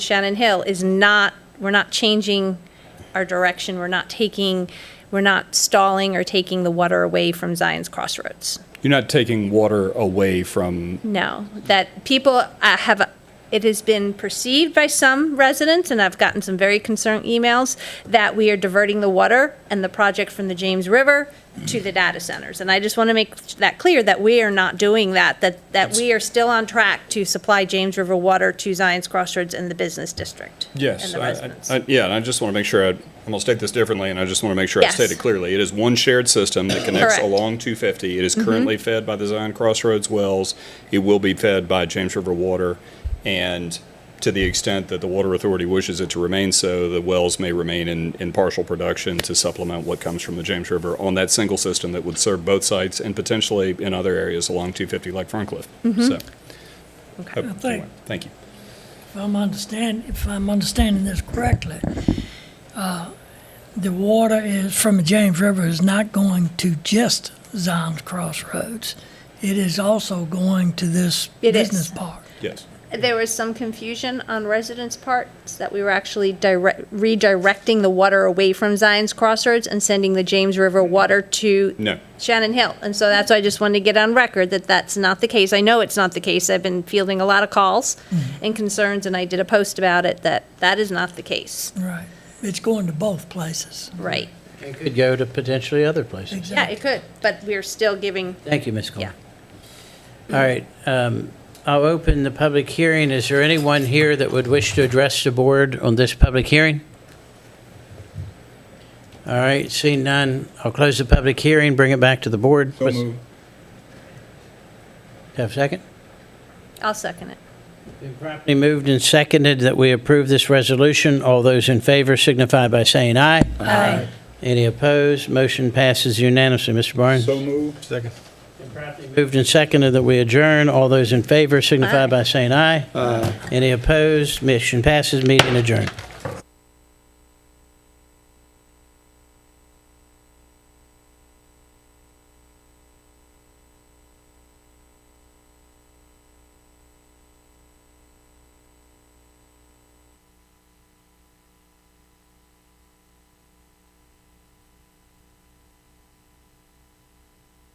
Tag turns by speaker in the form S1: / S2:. S1: Shannon Hill is not, we're not changing our direction, we're not taking, we're not stalling or taking the water away from Zion's Crossroads.
S2: You're not taking water away from,
S1: No, that people uh, have, it has been perceived by some residents, and I've gotten some very concerned emails, that we are diverting the water and the project from the James River to the data centers. And I just want to make that clear, that we are not doing that, that, that we are still on track to supply James River water to Zion's Crossroads and the business district.
S2: yes.
S1: And the
S2: I- I-
S1: residents.
S2: I- Yeah, and I just want to make sure, I- I'm going to state this differently, and I just want to make sure I
S1: Yes.
S2: state it clearly. It is one shared system that connects
S1: Correct. Mm-hmm.
S2: along 250. It is currently fed by the Zion Crossroads wells. It will be fed by James River Water, and to the extent that the Water Authority wishes it to remain so, the wells may remain in, in partial production to supplement what comes from the James River on that single system that would serve both sites and potentially in other areas along 250 like Ferncliff.
S1: Mm-hmm.
S2: So,
S1: Okay.
S2: hope-
S3: think-
S2: Thank you.
S3: If I'm understand, if I'm understanding this correctly, uh, the water is, from the James River is not going to just Zion's Crossroads. It is also going to this
S1: It is.
S3: business park.
S2: Yes.
S1: There was some confusion on residents' parts that we were actually direct, redirecting the water away from Zion's Crossroads and sending the James River water to
S2: No.
S1: Shannon Hill. And so that's why I just wanted to get on record that that's not the case. I know it's not the case. I've been fielding a lot of calls and concerns, and I did a post about it that that is not the case.
S3: Right. It's going to both places.
S1: Right.
S4: It could go to potentially other places.
S1: Yeah, it could, but we're still giving.
S4: Thank you, Ms. Cole.
S1: Yeah.
S4: All right, um, I'll open the public hearing. Is there anyone here that would wish to address the board on this public hearing? All right, seeing none, I'll close the public hearing, bring it back to the board. Ms. Have a second?
S1: I'll second it.
S4: Been properly moved and seconded that we approve this resolution. All those in favor signify by saying aye.
S1: Aye.
S4: Any opposed? Motion passes unanimously. Mr. Barnes? So moved. Second. Moved and seconded that we adjourn. All those in favor signify by saying aye. Aye. Any opposed? Mission passes. Meeting adjourned.